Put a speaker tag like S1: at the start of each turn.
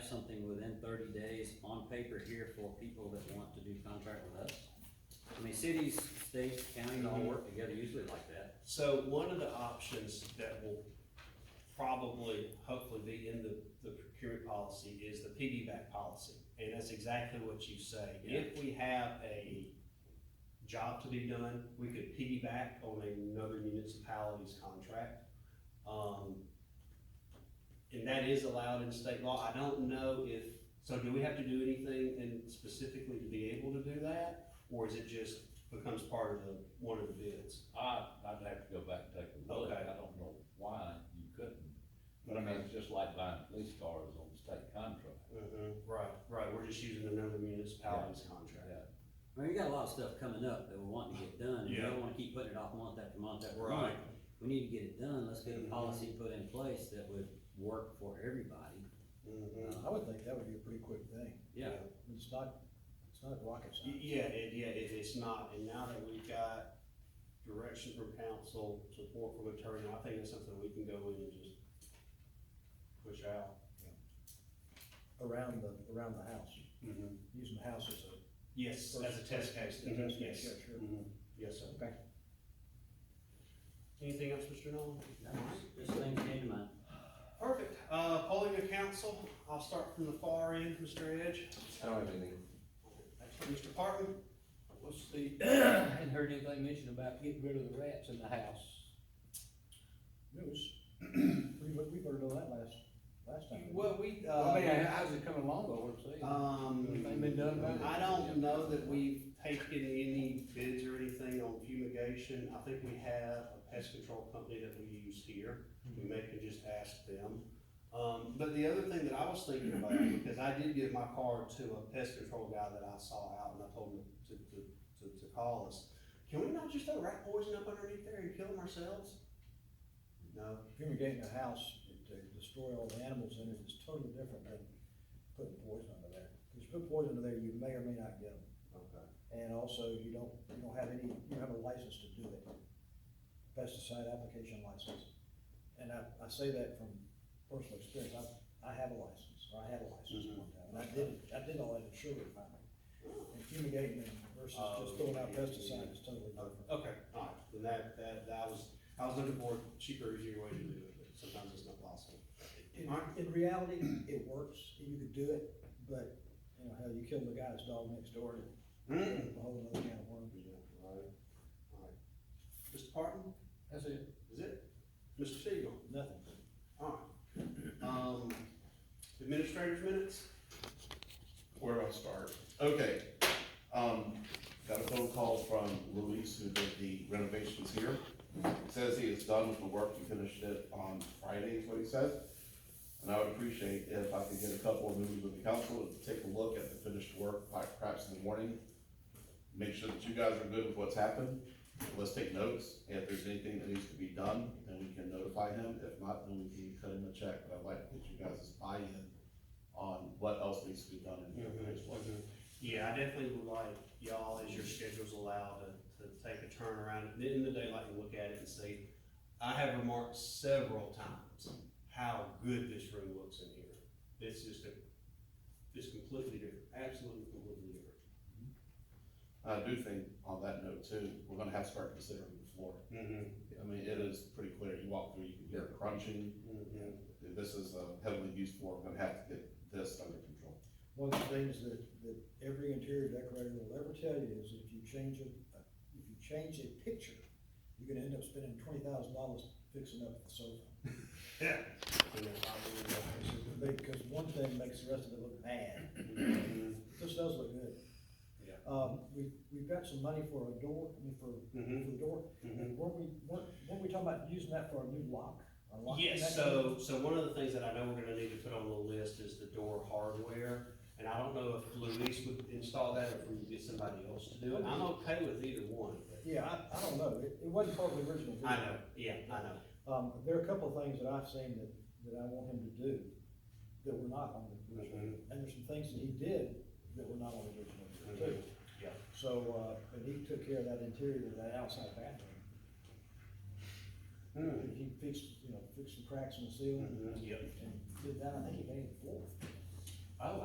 S1: something within thirty days on paper here for people that want to do contract with us? I mean, cities, states, counties all work together usually like that.
S2: So one of the options that will probably, hopefully be in the, the procurement policy is the piggyback policy. And that's exactly what you say. If we have a job to be done, we could piggyback on another municipality's contract. Um, and that is allowed in state law. I don't know if, so do we have to do anything in specifically to be able to do that? Or is it just becomes part of the, one of the bids?
S3: I, I'd have to go back and take a look,
S2: Okay.
S3: I don't know why you couldn't, but I mean, it's just like buying police cars on state contract.
S2: Mhm,
S4: Mm-hmm.
S2: right, right, we're just using another municipality's contract.
S3: Yeah,
S1: I mean, we got a lot of stuff coming up that we're wanting to get done, and we
S2: Yeah.
S1: don't wanna keep putting it off month after month after month. We need to get it done, let's get a policy put in place that would work for everybody.
S2: Mhm.
S1: Uh,
S4: I would think that would be a pretty quick thing.
S1: Yeah,
S4: It's not, it's not rocket
S2: Y-
S4: science.
S2: Yeah, it, yeah, it, it's not, and now that we've got direction from council, support from attorney, I think it's something we can go in and just push out.
S4: Around the, around the house, using the house as a.
S2: Yes, as a test case,
S4: Mm-hmm.
S2: Mhm,
S4: Yeah,
S2: yes.
S4: sure, sure.
S2: Mhm, Yes, sir.
S4: Okay.
S2: Anything else, Mr. Nolan?
S1: this thing came to mind.
S2: Perfect, uh, polling of council, I'll start from the far end, Mr. Edge,
S5: I don't have anything.
S2: That's for Mr. Parkman.
S6: What's the, I hadn't heard anything mentioned about getting rid of the rats in the house.
S4: News. We, we voted on that last, last time.
S2: Well, we, uh.
S6: I mean, how's it coming along, though, what I'm saying?
S2: Um,
S6: Anything been done about it?
S2: I don't know that we've taken any bids or anything on fumigation. I think we have a pest control company that we use here. We may could just ask them. Um, but the other thing that I was thinking about, because I did give my card to a pest control guy that I saw out and I told him to, to, to, to call us. Can we not just throw rat poison up underneath there and kill them ourselves? No,
S4: Fumigating a house to destroy all the animals in it is totally different than putting poison under there. Because you put poison under there, you may or may not get them.
S2: okay.
S4: And also, you don't, you don't have any, you don't have a license to do it. Pesticide application license. And I, I say that from personal experience, I, I have a license, or I had a license one time, and I did, I did all that in sugar refining. And fumigating and versus just throwing out pesticide is totally different.
S2: Okay, all right, then that, that, that was, I was looking for a cheaper, easier way to do it, but sometimes it's not possible.
S4: In,
S2: All right.
S4: in reality, it works, you could do it, but, you know, how you killed the guy's dog next door,
S2: Mm.
S4: it's a whole other can of worms.
S2: Yeah, right, all right. Mr. Parton,
S6: That's it.
S2: is it? Mr. Siegel,
S4: Nothing.
S2: all right. Um, administrator's minutes?
S5: Where do I start? Okay, um, got a phone call from Luis who did the renovations here. Says he is done with the work, he finished it on Friday is what he said. And I would appreciate if I could get a couple of movies with the council to take a look at the finished work, like perhaps in the morning. Make sure that you guys are good with what's happened. Let's take notes, and if there's anything that needs to be done, then we can notify him. If not, then we can cut him a check, but I'd like to get you guys' buy-in on what else needs to be done in here as well.
S2: Yeah, I definitely would like y'all, as your schedules allow, to, to take a turn around at the end of the daylight and look at it and see. I have remarked several times how good this room looks in here. It's just a, it's completely different, absolutely completely different.
S5: I do think on that note too, we're gonna have to start considering the floor. I mean, it is pretty clear, you walk through, you can hear it crunching. This is a heavily used floor, we're gonna have to get this under control.
S4: One of the things that, that every interior decorator will ever tell you is that if you change a, if you change a picture, you're gonna end up spending twenty thousand dollars fixing up the sofa.
S2: Yeah.
S4: Because one thing makes the rest of it look bad.
S2: Mm-hmm,
S4: This does look good.
S2: Yeah.
S4: Um, we, we've got some money for a door, I mean, for,
S2: Mhm.
S4: for the door. And weren't we, weren't, weren't we talking about using that for a new lock? a lock
S2: Yes, so,
S4: mechanism?
S2: so one of the things that I know we're gonna need to put on the list is the door hardware. And I don't know if Luis would install that or if we would get somebody else to do it. I'm okay with either one, but
S4: Yeah, I, I don't know. It, it wasn't part of the original.
S2: I
S4: deal.
S2: know, yeah, I know.
S4: Um, there are a couple of things that I've seen that, that I want him to do that were not on the original. deal. And there's some things that he did that were not on the original deal too.
S2: Yeah.
S4: So, uh, but he took care of that interior, of that outside bathroom.
S2: Hmm.
S4: He fixed, you know, fixed some cracks in the ceiling
S2: Mhm,
S4: and
S2: Hmm, Yeah. Oh,
S4: did that. I think he painted the floor.